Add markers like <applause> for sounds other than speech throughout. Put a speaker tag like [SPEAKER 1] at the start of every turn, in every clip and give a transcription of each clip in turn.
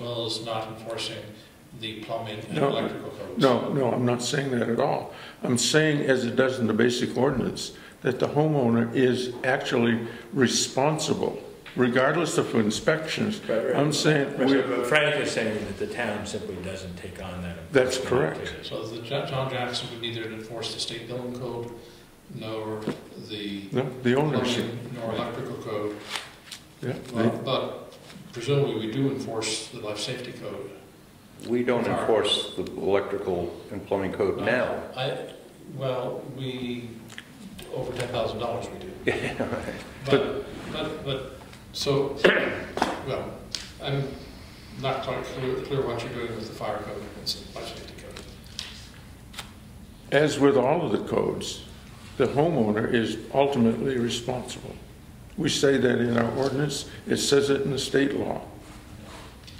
[SPEAKER 1] well as not enforcing the plumbing and
[SPEAKER 2] No,
[SPEAKER 1] electrical codes.
[SPEAKER 2] No, no, I'm not saying that at all. I'm saying, as it does in the basic ordinance, that the homeowner is actually responsible, regardless of inspections.
[SPEAKER 3] Right, right.
[SPEAKER 2] I'm saying,
[SPEAKER 3] But
[SPEAKER 2] we're-
[SPEAKER 3] but Frank is saying that the town simply doesn't take on that.
[SPEAKER 2] That's correct.
[SPEAKER 3] activity.
[SPEAKER 1] So the Ja- John Jackson would neither enforce the state building code nor the
[SPEAKER 2] no, the ownership,
[SPEAKER 1] plumbing nor electrical code.
[SPEAKER 2] yeah.
[SPEAKER 1] Well,
[SPEAKER 2] the-
[SPEAKER 1] But presumably, we do enforce the life safety code.
[SPEAKER 4] We don't enforce the electrical and plumbing code now.
[SPEAKER 1] I, well, we, over ten thousand dollars we do. But, but, but, so, well, I'm not quite clear, clear what you're doing with the fire code and the life safety code.
[SPEAKER 2] As with all of the codes, the homeowner is ultimately responsible. We say that in our ordinance, it says it in the state law.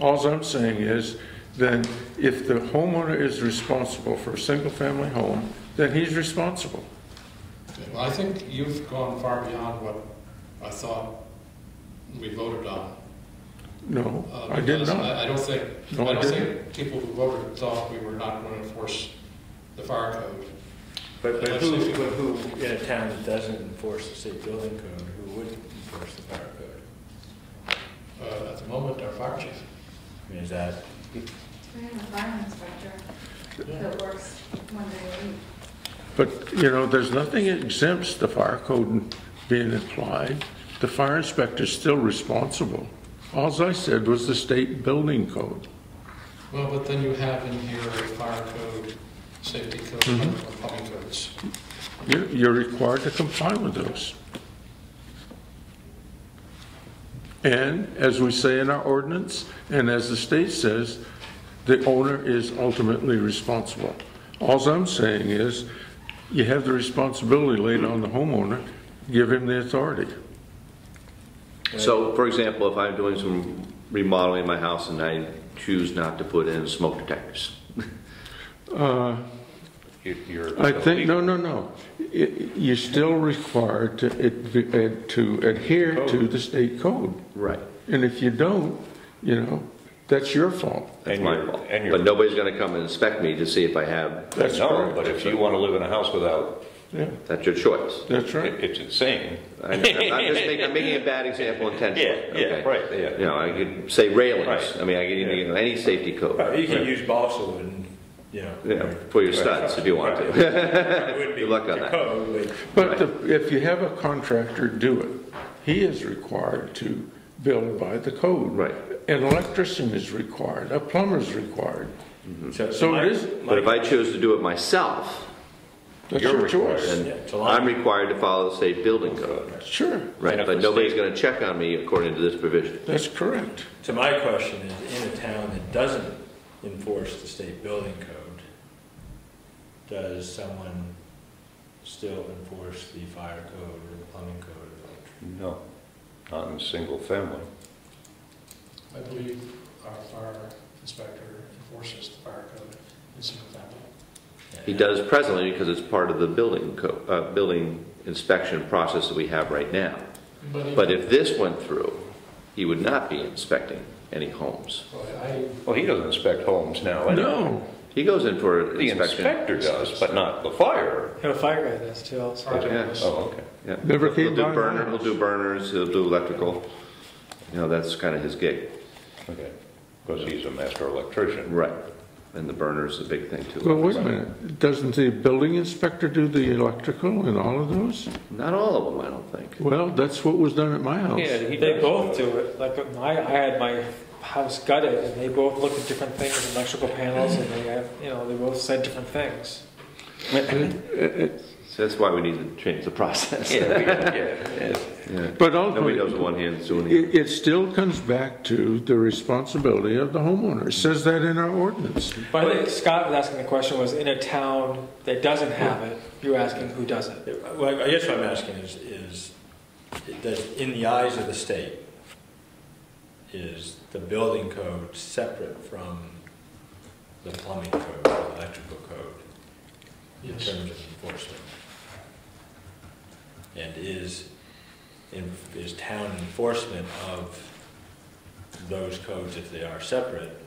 [SPEAKER 2] Alls I'm saying is, then if the homeowner is responsible for a single-family home, then he's responsible.
[SPEAKER 1] Okay, Well, I think you've gone far beyond what I thought we voted on.
[SPEAKER 2] No,
[SPEAKER 1] uh,
[SPEAKER 2] I did
[SPEAKER 1] because
[SPEAKER 2] not.
[SPEAKER 1] I I don't think, I
[SPEAKER 2] No, I
[SPEAKER 1] don't
[SPEAKER 2] didn't.
[SPEAKER 1] think people who voted thought we were not going to enforce the fire code.
[SPEAKER 3] But, but who, but who, in a town that doesn't enforce the state building code, who would enforce the fire code?
[SPEAKER 1] Uh, At the moment, our fire chief.
[SPEAKER 3] I mean, is that,
[SPEAKER 5] We have a fire inspector that works one day a week.
[SPEAKER 2] But, you know, there's nothing exempts the fire code being applied. The fire inspector's still responsible. Alls I said was the state building code.
[SPEAKER 1] Well, but then you have in here a fire code, safety code,
[SPEAKER 2] Mm-hmm.
[SPEAKER 1] and plumbing codes.
[SPEAKER 2] You- You're required to comply with those. And as we say in our ordinance, and as the state says, the owner is ultimately responsible. Alls I'm saying is, you have the responsibility laid on the homeowner, give him the authority.
[SPEAKER 6] So, for example, if I'm doing some remodeling in my house and I choose not to put in smoke detectors,
[SPEAKER 4] You- You're.
[SPEAKER 2] I think, no, no, no. I- You're still required to ad- to adhere to the state code.
[SPEAKER 6] right?
[SPEAKER 2] And if you don't, you know, that's your fault.
[SPEAKER 6] That's
[SPEAKER 4] And
[SPEAKER 6] my
[SPEAKER 4] you're-
[SPEAKER 6] fault.
[SPEAKER 4] and you're-
[SPEAKER 6] But nobody's gonna come and inspect me to see if I have,
[SPEAKER 2] That's
[SPEAKER 4] No,
[SPEAKER 2] correct.
[SPEAKER 4] but if you want to live in a house without,
[SPEAKER 2] Yeah,
[SPEAKER 6] that's your choice.
[SPEAKER 4] <laughs>
[SPEAKER 2] that's right.
[SPEAKER 4] it- it's insane.
[SPEAKER 6] I know, I'm I'm just making, I'm making a bad example intentionally.
[SPEAKER 4] Yeah, yeah,
[SPEAKER 6] okay?
[SPEAKER 4] right, yeah.
[SPEAKER 6] You know, I could say railings,
[SPEAKER 4] Right.
[SPEAKER 6] I mean, I could even, any safety code.
[SPEAKER 3] Well, you can
[SPEAKER 6] Right.
[SPEAKER 3] use balsa and, you know.
[SPEAKER 6] Yeah, for your studs, if you want to.
[SPEAKER 3] Good
[SPEAKER 6] <laughs> Good luck on that.
[SPEAKER 2] But the- if you have a contractor do it, he is required to build by the code.
[SPEAKER 6] Right.
[SPEAKER 2] An electrician is required, a plumber's required. So
[SPEAKER 3] So
[SPEAKER 2] it is-
[SPEAKER 6] But if I choose to do it myself,
[SPEAKER 2] That's
[SPEAKER 4] You're
[SPEAKER 2] your
[SPEAKER 4] required.
[SPEAKER 2] choice.
[SPEAKER 3] Yeah, it's a
[SPEAKER 6] then
[SPEAKER 3] lot.
[SPEAKER 6] I'm required to follow the state building code.
[SPEAKER 2] Sure,
[SPEAKER 4] And
[SPEAKER 6] Right,
[SPEAKER 4] if
[SPEAKER 6] but
[SPEAKER 4] the
[SPEAKER 6] nobody's
[SPEAKER 4] state-
[SPEAKER 6] gonna check on me according to this provision.
[SPEAKER 2] that's correct.
[SPEAKER 3] So my question is, in a town that doesn't enforce the state building code, does someone still enforce the fire code or the plumbing code or the electric?
[SPEAKER 4] No, not in a single family.
[SPEAKER 1] I believe our fire inspector enforces the fire code in single family.
[SPEAKER 6] He does presently because it's part of the building co, uh, building inspection process that we have right now.
[SPEAKER 1] he-
[SPEAKER 6] But if this went through, he would not be inspecting any homes.
[SPEAKER 1] Well, I,
[SPEAKER 4] Well, he doesn't inspect homes now. anyway.
[SPEAKER 2] No,
[SPEAKER 6] He goes in for
[SPEAKER 4] The
[SPEAKER 6] inspection.
[SPEAKER 4] inspector does, but not the fire.
[SPEAKER 7] And a fire guy does too also.
[SPEAKER 1] our
[SPEAKER 6] Yeah.
[SPEAKER 1] business.
[SPEAKER 4] Oh, okay.
[SPEAKER 6] Yeah.
[SPEAKER 2] Never
[SPEAKER 6] He'll
[SPEAKER 2] came
[SPEAKER 6] do
[SPEAKER 2] by my
[SPEAKER 6] burner-
[SPEAKER 2] house.
[SPEAKER 6] He'll do burners, he'll do electrical. You know, that's kind of his gig.
[SPEAKER 4] Okay, because he's a master electrician.
[SPEAKER 6] Right. And the burner's a big thing too.
[SPEAKER 2] well, wait a minute, doesn't the building inspector do the electrical and all of those?
[SPEAKER 6] Not all of them, I don't think.
[SPEAKER 2] Well, that's what was done at my house.
[SPEAKER 4] he
[SPEAKER 7] They both do it. Like my, I had my house gutted and they both looked at different things, electrical panels and they have, you know, they both said different things.
[SPEAKER 6] So that's why we need to change the process.
[SPEAKER 4] Yeah, we- yeah.
[SPEAKER 6] Yeah.
[SPEAKER 2] But
[SPEAKER 6] <laughs> Nobody
[SPEAKER 2] ultimately,
[SPEAKER 6] knows what one
[SPEAKER 2] <laughs>
[SPEAKER 6] hand's doing. the other.
[SPEAKER 2] it, it still comes back to the responsibility of the homeowner. It says that in our ordinance.
[SPEAKER 7] But I think Scott was asking the question was in a town that doesn't have it, you're asking who does it?
[SPEAKER 3] Well, I guess what I'm asking is, is, does, in the eyes of the state, is the building code separate from the plumbing code, the electrical code, in
[SPEAKER 1] Yes.
[SPEAKER 3] terms of enforcement? And is, in- is town enforcement of those codes, if they are separate,